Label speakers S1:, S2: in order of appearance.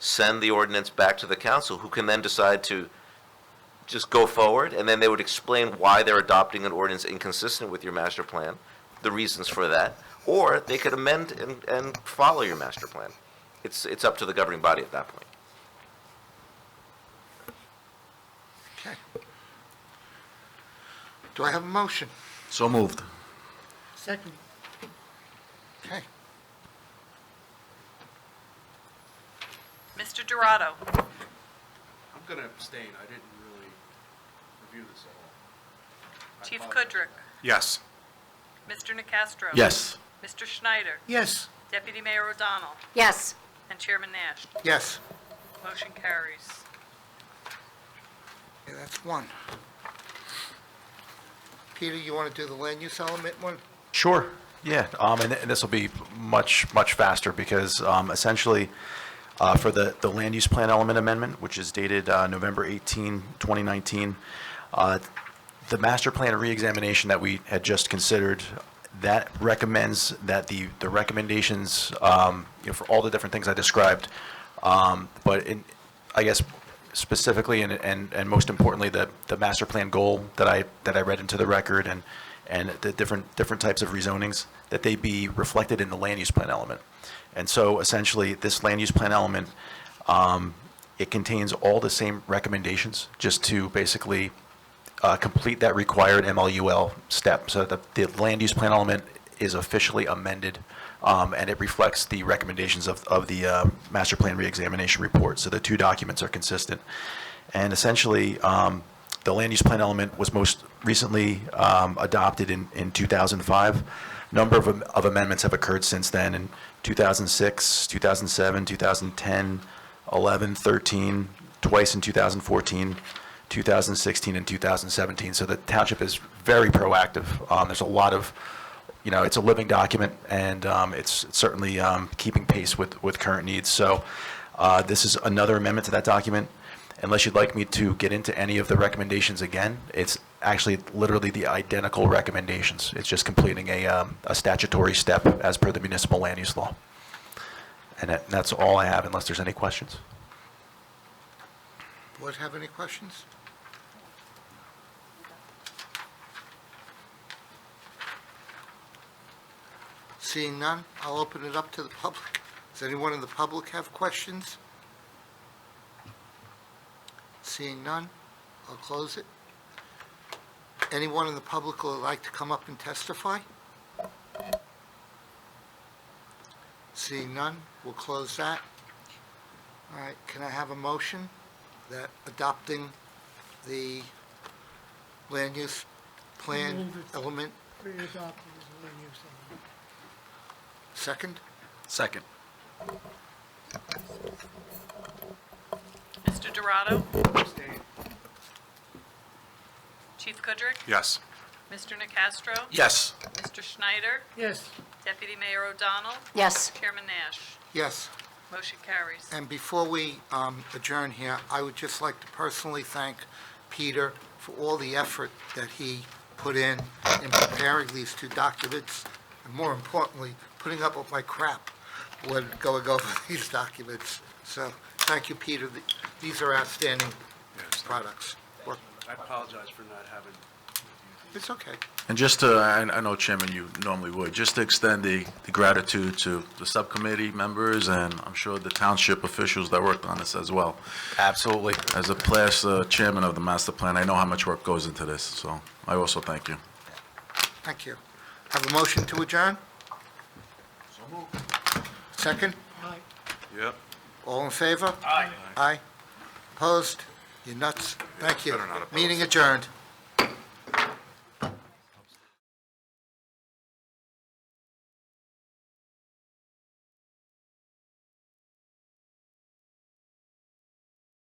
S1: send the ordinance back to the council, who can then decide to just go forward, and then they would explain why they're adopting an ordinance inconsistent with your master plan, the reasons for that, or they could amend and, and follow your master plan. It's, it's up to the governing body at that point.
S2: Do I have a motion?
S3: So moved.
S4: Second.
S2: Okay.
S5: Mr. Dorado,
S6: I'm going to abstain. I didn't really review this at all. I
S5: Chief
S6: apologize.
S5: Kudrick,
S3: Yes.
S5: Mr. Nacastro.
S3: Yes.
S5: Mr. Schneider,
S2: Yes.
S5: Deputy Mayor O'Donnell,
S4: Yes.
S5: and Chairman Nash.
S2: Yes.
S5: Motion carries.
S2: Okay, that's one. Peter, you want to do the land use element one?
S7: Sure, yeah, um, and, and this will be much, much faster because, um, essentially, uh, for the, the land use plan element amendment, which is dated, uh, November 18, 2019, uh, the master plan reexamination that we had just considered, that recommends that the, the recommendations, um, you know, for all the different things I described, um, but in, I guess specifically and, and, and most importantly, the, the master plan goal that I, that I read into the record and, and the different, different types of rezonings, that they be reflected in the land use plan element. And so essentially, this land use plan element, um, it contains all the same recommendations, just to basically, uh, complete that required MLUL step. So the, the land use plan element is officially amended, um, and it reflects the recommendations of, of the, uh, master plan reexamination report. So the two documents are consistent. And essentially, um, the land use plan element was most recently, um, adopted in, in two thousand and five. Number of, am- of amendments have occurred since then in two thousand six, two thousand seven, two thousand ten, 11, 13, twice in 2014, 2016, and 2017. So the township is very proactive. Um, There's a lot of, you know, it's a living document, and um, it's certainly um, keeping pace with, with current needs. So uh, this is another amendment to that document. Unless you'd like me to get into any of the recommendations again, it's actually literally the identical recommendations. It's just completing a um, a statutory step as per the municipal land use law. And that- that's all I have, unless there's any questions.
S2: Board have any questions? Seeing none, I'll open it up to the public. Does anyone in the public have questions? Seeing none, I'll close it. Anyone in the public who would like to come up and testify? Seeing none, we'll close that. All right, can I have a motion that adopting the land use plan element, second?
S3: Second.
S5: Mr. Dorado,
S6: Abstain.
S5: Chief Kudrick,
S3: Yes.
S5: Mr. Nacastro,
S3: Yes.
S5: Mr. Schneider,
S4: Yes.
S5: Deputy Mayor O'Donnell,
S4: Yes.
S5: Chairman Nash.
S2: Yes,
S5: Motion carries.
S2: and before we um, adjourn here, I would just like to personally thank Peter for all the effort that he put in in preparing these two documents, and more importantly, putting up with my crap when going over these documents. So, thank you, Peter. Th- These are outstanding products. Work-
S6: I apologize for not having
S2: It's okay.
S3: And just to, I I know, Chairman, you normally would, just to extend the the gratitude to the subcommittee members, and I'm sure the township officials that worked on this as well.
S7: Absolutely.
S3: As a past uh, chairman of the master plan, I know how much work goes into this, so I also thank you.
S2: Thank you. Have a motion to adjourn? Second?
S6: Yep.
S2: All in favor? Aye. Aye. Opposed? You're nuts. Thank you. Meeting adjourned.